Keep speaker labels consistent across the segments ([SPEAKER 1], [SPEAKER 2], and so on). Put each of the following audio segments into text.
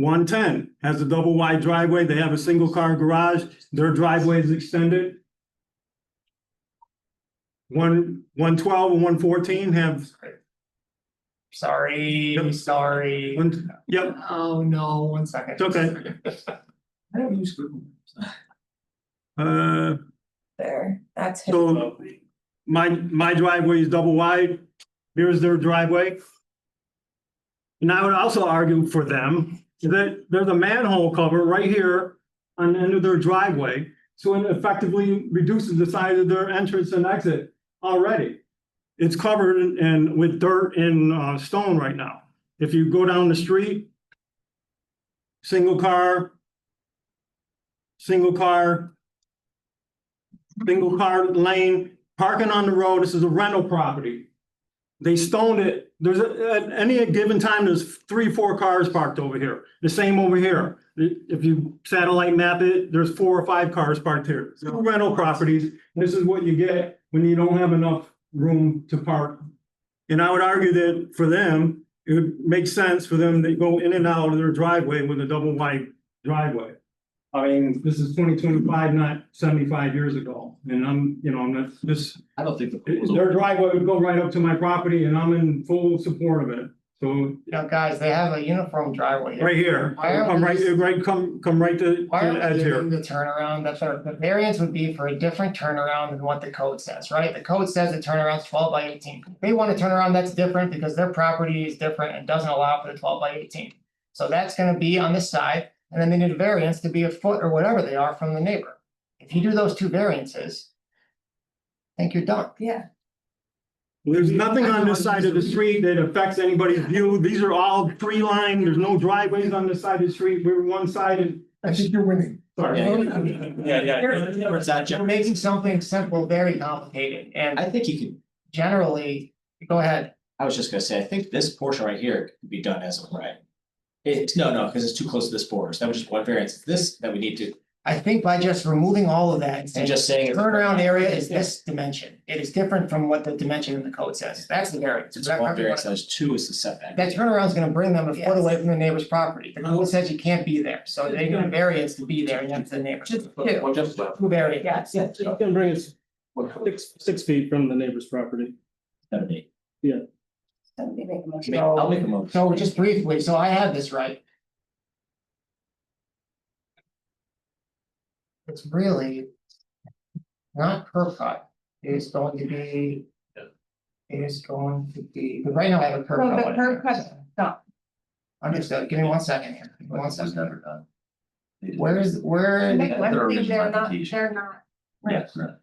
[SPEAKER 1] One ten has a double wide driveway. They have a single car garage. Their driveway is extended. One, one twelve and one fourteen have,
[SPEAKER 2] Sorry,
[SPEAKER 1] Yep.
[SPEAKER 2] sorry.
[SPEAKER 1] one, yep,
[SPEAKER 2] Oh, no, one second.
[SPEAKER 1] It's okay.
[SPEAKER 2] I don't use Google.
[SPEAKER 1] uh,
[SPEAKER 3] there, that's him.
[SPEAKER 1] so my, my driveway is double wide. Here's their driveway. And I would also argue for them that there's a manhole cover right here on the end of their driveway. So it effectively reduces the size of their entrance and exit already. It's covered in- and with dirt and uh stone right now. If you go down the street. Single car. Single car. Single car lane, parking on the road, this is a rental property. They stoned it, there's a- at any given time, there's three, four cars parked over here, the same over here. I- If you satellite map it, there's four or five cars parked here, It's rental properties, this is what you get when you don't have enough room to park. And I would argue that for them, it would make sense for them to go in and out of their driveway with a double wide driveway. I mean, this is twenty twenty-five, not seventy-five years ago, and I'm, you know, I'm not, this,
[SPEAKER 4] I don't think the. pool is
[SPEAKER 1] their driveway would go right up to my property and I'm in full support of it. So
[SPEAKER 2] You know, guys, they have a uniform driveway.
[SPEAKER 1] right here,
[SPEAKER 2] Why aren't
[SPEAKER 1] I'm
[SPEAKER 2] we
[SPEAKER 1] right,
[SPEAKER 2] just-
[SPEAKER 1] right, come, come right to to
[SPEAKER 2] Why
[SPEAKER 1] the
[SPEAKER 2] are
[SPEAKER 1] edge
[SPEAKER 2] we
[SPEAKER 1] here.
[SPEAKER 2] giving the turnaround? That's our, the variance would be for a different turnaround than what the code says, right? The code says the turnaround's twelve by eighteen. They want a turnaround that's different because their property is different and doesn't allow for the twelve by eighteen. So that's gonna be on the side, and then they need a variance to be a foot or whatever they are from the neighbor. If you do those two variances. I think you're done.
[SPEAKER 3] Yeah,
[SPEAKER 1] There's nothing on this side of the street that affects anybody's view. These are all tree line. There's no driveways on this side of the street. We're one sided.
[SPEAKER 2] I think you're winning.
[SPEAKER 4] Yeah, yeah, yeah, yeah, it's not
[SPEAKER 2] You're
[SPEAKER 4] Jeff.
[SPEAKER 2] making something simple very complicated, and
[SPEAKER 4] I think you could,
[SPEAKER 2] generally, go ahead,
[SPEAKER 4] I was just gonna say, I think this portion right here could be done as a right. It's, no, no, because it's too close to this border, so that was just one variance, It's this that we need to,
[SPEAKER 2] I think by just removing all of that and
[SPEAKER 4] and
[SPEAKER 2] saying.
[SPEAKER 4] just saying. it's-
[SPEAKER 2] Turnaround area is this dimension, it is different from what the dimension in the code says, that's the variance.
[SPEAKER 4] It's one variance, that was two is the setback.
[SPEAKER 2] That turnaround's gonna bring them a
[SPEAKER 3] Yes.
[SPEAKER 2] foot away from the neighbor's property, the code says you can't be there, so they get a variance to be there, and that's the neighbor.
[SPEAKER 3] just two,
[SPEAKER 4] Well, just, well,
[SPEAKER 2] Two variance.
[SPEAKER 3] yes,
[SPEAKER 5] Yeah, you can bring us six, six feet from the neighbor's property.
[SPEAKER 4] that'd be,
[SPEAKER 3] somebody make a motion.
[SPEAKER 4] make- I'll make a motion.
[SPEAKER 2] So just briefly, so I have this right. It's really. Not curb cut, it is going to be. It is going to be, but right now I have a curb
[SPEAKER 3] Well,
[SPEAKER 2] cut.
[SPEAKER 3] the
[SPEAKER 2] on it.
[SPEAKER 3] curb cut, stop.
[SPEAKER 2] Understood, give me one second here, give me one second,
[SPEAKER 4] done.
[SPEAKER 2] where is, where,
[SPEAKER 3] Make
[SPEAKER 4] their
[SPEAKER 3] one thing,
[SPEAKER 4] original
[SPEAKER 3] they're not,
[SPEAKER 4] application.
[SPEAKER 3] they're not.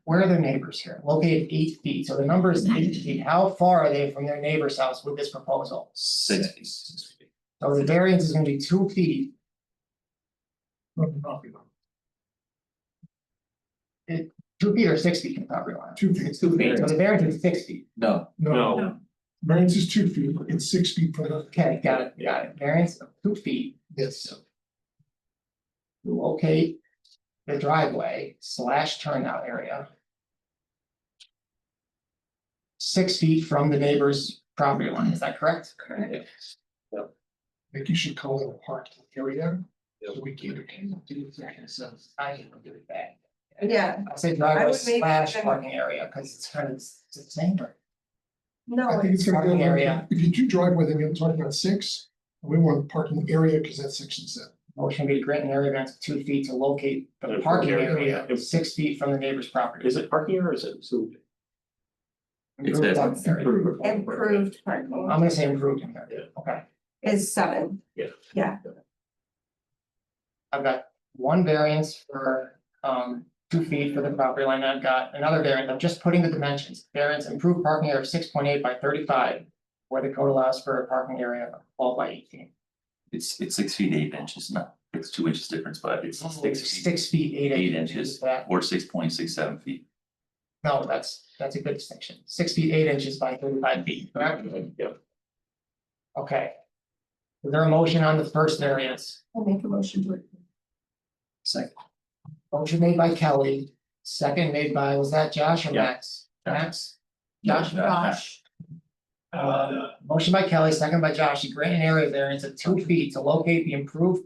[SPEAKER 2] where are their neighbors here, located eight feet, so the number is eight feet, how far are they from their neighbor's house with this proposal?
[SPEAKER 4] Six.
[SPEAKER 2] So the variance is gonna be two feet. from the property line. It, two feet or six feet from the property line? Two feet. Two feet, so the variance is six feet.
[SPEAKER 4] No,
[SPEAKER 6] No. Variance is two feet, it's six feet from the.
[SPEAKER 2] Okay, got it, got it, variance of two feet.
[SPEAKER 6] Yes.
[SPEAKER 2] to locate the driveway slash turnout area. Six feet from the neighbor's property line, is that correct? Correct.
[SPEAKER 6] I think you should call it a parking area. So we can.
[SPEAKER 2] So I am gonna do it back.
[SPEAKER 3] Yeah,
[SPEAKER 2] I say
[SPEAKER 3] I
[SPEAKER 2] driveway
[SPEAKER 3] would make-
[SPEAKER 2] slash parking area, cause it's kind of it's the same. right?
[SPEAKER 3] no,
[SPEAKER 6] I think it's gonna be.
[SPEAKER 2] Parking area.
[SPEAKER 6] If you do driveway, then you're talking about six, and we want parking area, because that's section seven.
[SPEAKER 2] Motion be to grant an area variance of two feet to locate the parking area six feet from the neighbor's property.
[SPEAKER 7] Is it parking or is it so?
[SPEAKER 2] Improved parking area.
[SPEAKER 3] improved parking
[SPEAKER 2] I'm gonna say improved in there, okay.
[SPEAKER 3] is seven.
[SPEAKER 2] I've got one variance for um two feet for the property line, I've got another variance, I'm just putting the dimensions, variance improved parking area of six point eight by thirty-five. Where the code allows for a parking area of twelve by eighteen.
[SPEAKER 8] It's it's six feet eight inches, not, it's two inches difference, but it's six feet
[SPEAKER 2] Six feet, eight
[SPEAKER 8] Eight
[SPEAKER 2] inches,
[SPEAKER 8] inches.
[SPEAKER 2] that,
[SPEAKER 8] or six point six seven feet.
[SPEAKER 2] no, that's, that's a good distinction, six feet, eight inches by thirty-five feet, correct?
[SPEAKER 7] Yeah.
[SPEAKER 2] Okay. Is there a motion on the first variance?
[SPEAKER 3] I'll make a motion to it.
[SPEAKER 4] second,
[SPEAKER 2] Motion made by Kelly, second made by, was that Josh or
[SPEAKER 4] Yeah.
[SPEAKER 2] Max? Max? Josh,
[SPEAKER 8] No, not-
[SPEAKER 2] Josh. Uh, motion by Kelly, second by Josh, to grant an area variance of two feet to locate the improved